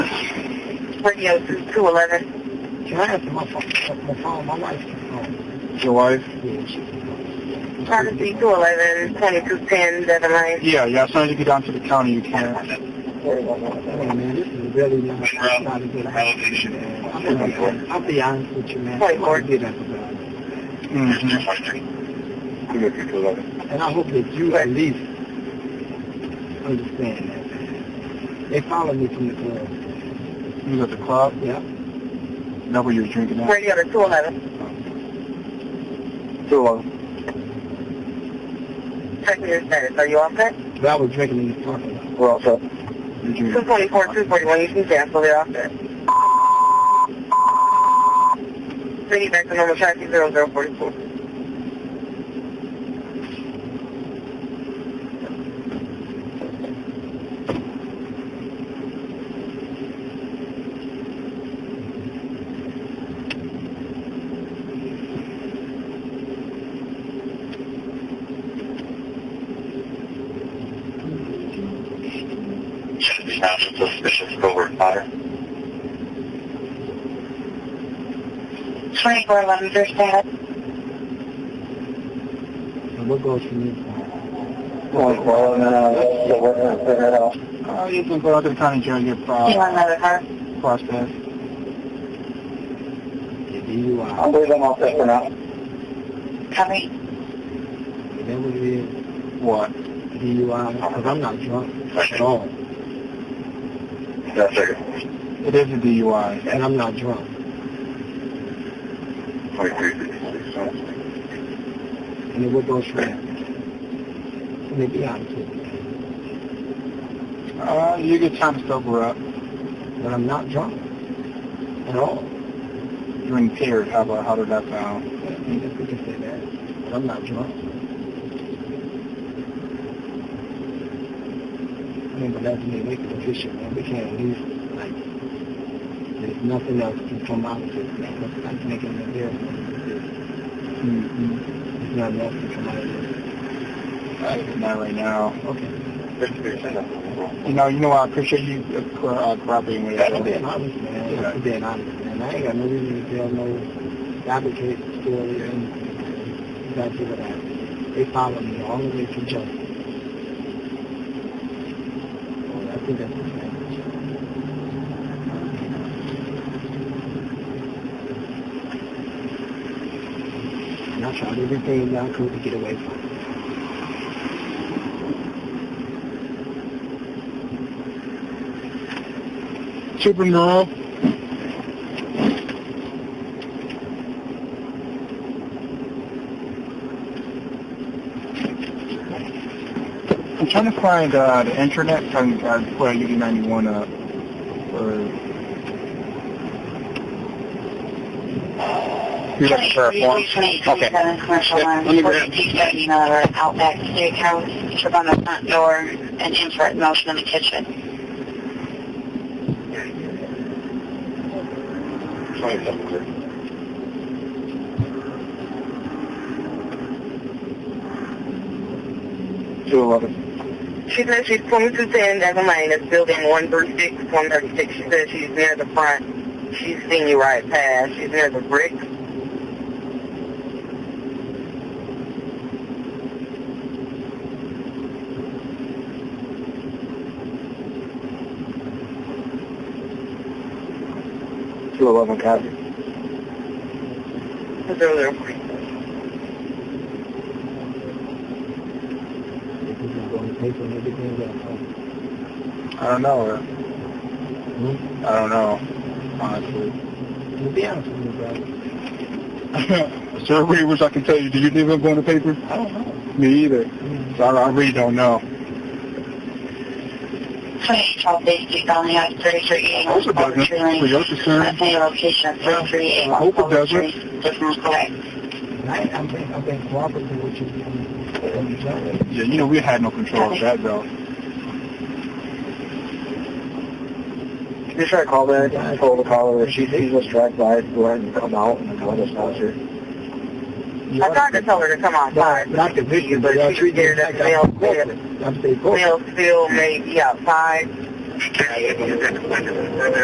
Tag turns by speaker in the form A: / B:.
A: radio through 211.
B: Can I ask you my phone? My phone, my wife.
C: Your wife?
B: Yeah, she's
A: Pharmacy 211, 2210, Devon Lane.
C: Yeah, yeah, as soon as you get down to the county, you can.
B: Hey, man, this is really not, not a good idea. I'm gonna- I'll be honest with you, man. I'm gonna get up about it.
C: Mhm.
A: Mm-hmm.
B: And I hope that you at least understand that, man. They follow me from the club.
C: You was at the club,
B: Yeah.
C: that's where you were drinking at.
A: Radio to 211.
C: So,
A: Check your status. Are you all set?
B: But I was drinking in the parking lot.
C: we're all set. You're drinking.
A: 224, 241, you can cancel. They're all set. Bring it back to normal traffic 0044.
D: Sound suspicious covert fire.
A: 2411 is your status.
B: And what goes from there?
D: Well, no, uh, the weather is turned off.
C: Uh, you can go out to the county jail, get, uh,
A: another car?
C: processed.
B: The DUI.
D: I'll leave them off there for now.
A: Coming.
B: Is that what it is?
C: What?
B: DUI? Because I'm not drunk at all.
D: That's it.
C: It is a DUI.
B: And I'm not drunk. And then what goes from there? Let me be honest with you.
C: Uh, you get time to sober up.
B: But I'm not drunk at all.
C: You're impaired. How about, how did that sound?
B: I guess we can say that. But I'm not drunk. I mean, but that's me making a decision, man. We can't lose, like, there's nothing else can come out of this, man. It's like making an embarrassment. There's
C: Mm-hmm.
B: there's nothing else can come out of this.
C: Not right now.
B: Okay.
C: You know, you know, I appreciate you uh, co- uh, cooperating with
B: I'm
C: us.
B: being honest, man. I'm being honest, man. I ain't got no reason to tell no fabricate story and that's what happened. They followed me all the way to justice. Well, I think that's the thing. And I tried everything that I could to get away from it.
C: Super Neural. I'm trying to find uh, the intranet so I can uh, put UD91 up. Or... You have to share a form? Okay.
A: Commercial
C: Yeah,
A: line,
C: let me grab-
A: 4270 Miller, Outback Steak House, trip on the front door, and infrared motion in the kitchen.
C: Two eleven.
A: She says she's 2210 Devon Lane, it's building 136, 136. She says she's near the front. She's seen you right past. She's near the brick.
C: Two eleven copy.
A: 0040.
B: This is going to pay for everything that I could.
C: I don't know. I don't know, Uh, honestly.
B: To be honest with you, bro,
C: Sir, we wish I can tell you. Do you think I'm going to paper?
B: I don't know.
C: Me either. So I, I really don't know.
A: 2812 Bay Street, Valley House, 3380
C: I hope it doesn't.
A: Culver Tree Lane.
C: For your concern,
A: That's my location,
C: I
A: 3380
C: hope it
A: Culver
C: doesn't.
A: Tree. Does not correct.
B: And I, I've been, I've been cooperating with you from the jump.
C: yeah, you know, we had no control of that, though.
D: You try to call back and told the caller if she sees us drive by, go ahead and come
C: Oh,
D: out and tell us not to.
C: You
A: I tried to tell her to come outside.
B: Not, not the victim, but y'all treat me like I'm corporate. I'm saying corporate.
A: We'll still maybe outside.